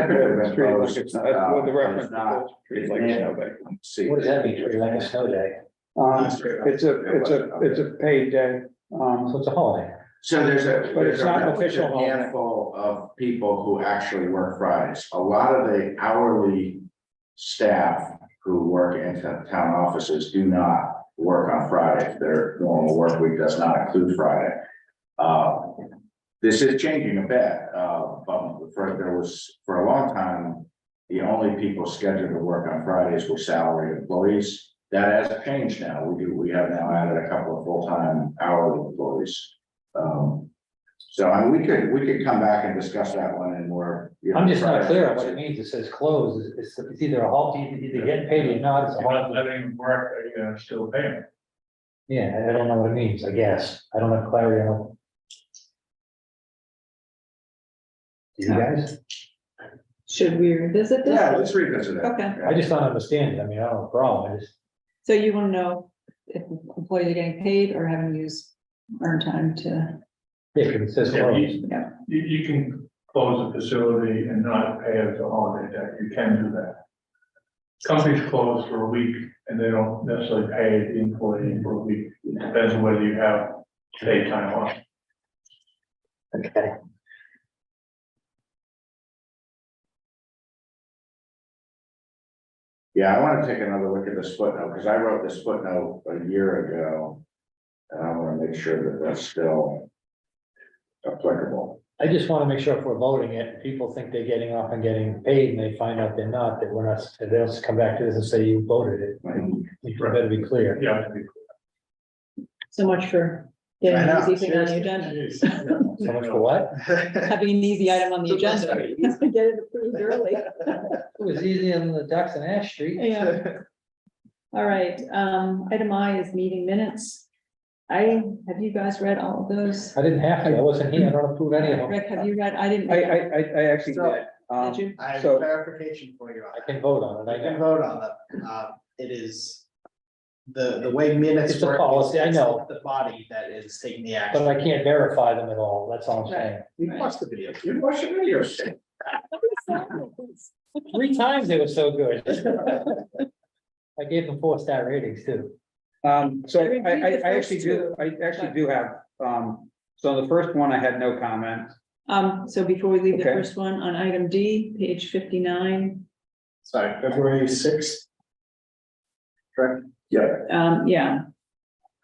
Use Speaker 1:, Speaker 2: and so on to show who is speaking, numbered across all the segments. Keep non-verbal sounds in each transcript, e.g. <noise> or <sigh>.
Speaker 1: Typically, it's treated like oh, it's,
Speaker 2: It's
Speaker 1: that's
Speaker 2: not-
Speaker 1: what the
Speaker 2: it's
Speaker 1: reference is,
Speaker 2: not-
Speaker 1: it's treated
Speaker 2: it's
Speaker 1: like
Speaker 2: not-
Speaker 1: snowbank.
Speaker 2: See.
Speaker 3: What does that mean, treated like a snow day?
Speaker 1: Um, it's a, it's a, it's a paid day, um,
Speaker 3: So it's a holiday.
Speaker 2: So there's a.
Speaker 1: But it's not official
Speaker 2: there's a Handful of people who actually work Fridays. A lot of the hourly staff who work in to- town offices do not work on Friday. Their normal work week does not include Friday. Uh, This is changing a bit, uh, but for, there was, for a long time, the only people scheduled to work on Fridays were salaried employees. That has changed now. We do, we have now added a couple of full-time hourly employees. Um, so I mean, we could, we could come back and discuss that one in more. you know,
Speaker 3: I'm just not
Speaker 2: Friday.
Speaker 3: clear on what it means. It says closed. It's, it's- it's either a halt, you either get paid or not. It's a
Speaker 4: You're not
Speaker 3: halt.
Speaker 4: letting him work, are you gonna still pay him?
Speaker 3: Yeah, I- I don't know what it means, I guess. I don't have clarity on. Do you guys?
Speaker 5: Should we revisit this?
Speaker 2: Yeah, let's revisit it.
Speaker 5: Okay,
Speaker 3: I just don't understand. it. I mean, I don't have a problem. I just,
Speaker 5: so you want to know if employees are getting paid or having used earned time to,
Speaker 3: if it says
Speaker 4: Yeah,
Speaker 3: closed.
Speaker 4: you,
Speaker 5: yeah.
Speaker 4: you, you can close the facility and not pay as a holiday day, you can do that. Companies close for a week and they don't necessarily pay the employee for a week, depends on whether you have paid time off.
Speaker 3: Okay.
Speaker 2: Yeah, I wanna take another look at this footnote, cause I wrote this footnote a year ago. And I wanna make sure that that's still applicable.
Speaker 3: I just want to make sure if we're voting it, people think they're getting off and getting paid and they find out they're not, that we're not, they'll just come back to this and say you voted it. You better be clear.
Speaker 4: Yeah.
Speaker 5: So much for
Speaker 2: I
Speaker 5: getting
Speaker 2: know,
Speaker 5: an easy thing on the agenda,
Speaker 3: So much for what?
Speaker 5: having an easy item on the agenda. <laughs> Get it approved early.
Speaker 3: It was easy on the docks and Ash Street.
Speaker 5: Yeah. All right, um, item I is meeting minutes. I, have you guys read all of those?
Speaker 3: I didn't have to, I wasn't here, I don't approve any of them.
Speaker 5: Rick, have you read? I didn't.
Speaker 1: I,
Speaker 5: read
Speaker 1: I,
Speaker 5: them.
Speaker 1: I, I actually did, um,
Speaker 5: Did you?
Speaker 6: I have
Speaker 1: So-
Speaker 6: clarification for you.
Speaker 3: I can vote on it,
Speaker 6: I
Speaker 3: I
Speaker 6: can
Speaker 3: know.
Speaker 6: vote on them. Um, it is the, the way minutes.
Speaker 3: It's a
Speaker 6: work is
Speaker 3: policy, I
Speaker 6: it's
Speaker 3: know.
Speaker 6: not The body that is taking the
Speaker 3: But
Speaker 6: action.
Speaker 3: I can't verify them at all, that's all I'm saying.
Speaker 6: We watched the video.
Speaker 2: You watch the videos.
Speaker 3: Three times they were so good. <laughs> I gave them four star ratings too.
Speaker 1: um, so
Speaker 5: I
Speaker 1: I,
Speaker 5: reviewed
Speaker 1: I,
Speaker 5: the
Speaker 1: I
Speaker 5: first
Speaker 1: actually do,
Speaker 5: two,
Speaker 1: I actually
Speaker 5: but-
Speaker 1: do have, um. So on the first one, I had no comment,
Speaker 5: Um, so before we leave the
Speaker 1: Okay.
Speaker 5: first one, on item D, page fifty-nine,
Speaker 6: Sorry, February sixth. Correct,
Speaker 2: Yeah,
Speaker 5: um, yeah,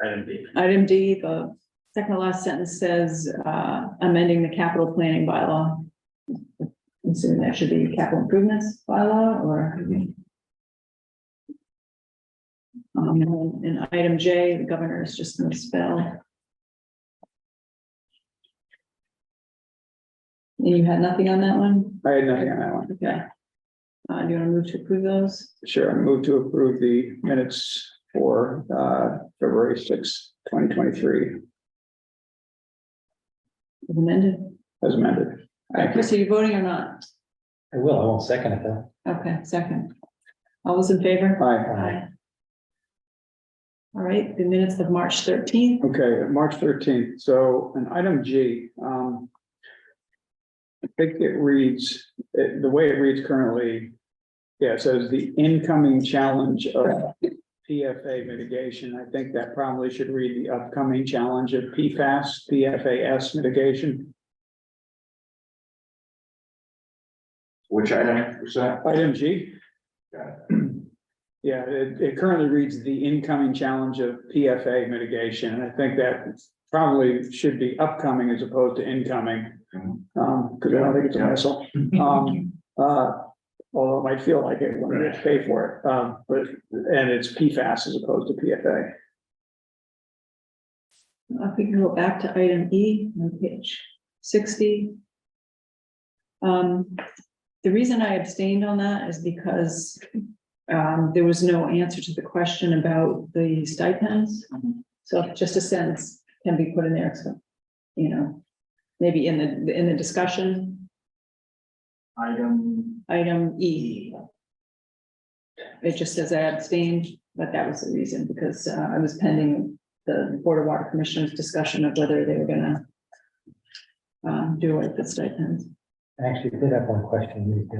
Speaker 6: item B.
Speaker 5: Item D, the second to last sentence says, uh, amending the capital planning bylaw. I'm Assuming that should be capital improvements bylaw or. Um, and item J, the governor is just gonna spell. And you had nothing on that one?
Speaker 1: I had nothing on that one,
Speaker 5: Okay. Uh, do you wanna move to approve those?
Speaker 1: sure, I move to approve the minutes for, uh, February sixth, twenty twenty-three,
Speaker 5: as Amended?
Speaker 1: as amended. Thank you.
Speaker 5: Chris, are you voting or not?
Speaker 3: I will, I won't second it though.
Speaker 5: Okay, second. All those in favor?
Speaker 1: Aye.
Speaker 5: Aye. All right, the minutes of March thirteenth,
Speaker 1: Okay, March thirteenth, so an item G, um. I think it reads, it- the way it reads currently, yeah, it says the incoming challenge of PFA mitigation. I think that probably should read the upcoming challenge of PFAS, PFAS mitigation.
Speaker 2: which item was that?
Speaker 1: Item G.
Speaker 2: Got
Speaker 1: <clears throat> Yeah, it, it currently reads the incoming challenge of PFA mitigation, and I think that probably should be upcoming as opposed to incoming.
Speaker 2: Mhm.
Speaker 1: Um, because I don't think it's a hassle. Um, uh, although it might feel like it when you pay for it, um, but, and it's PFAS as opposed to PFA.
Speaker 5: I think we'll go back to item E on page sixty. Um, the reason I abstained on that is because um, there was no answer to the question about the stipends. So just a sentence can be put in there, so, you know, maybe in the, in the discussion,
Speaker 6: Item
Speaker 5: Item E. It just says I abstained, but that was the reason, because uh, I was pending the Board of Water Commissioners' discussion of whether they were gonna um, do it, the stipends.
Speaker 3: I Actually, did have one question.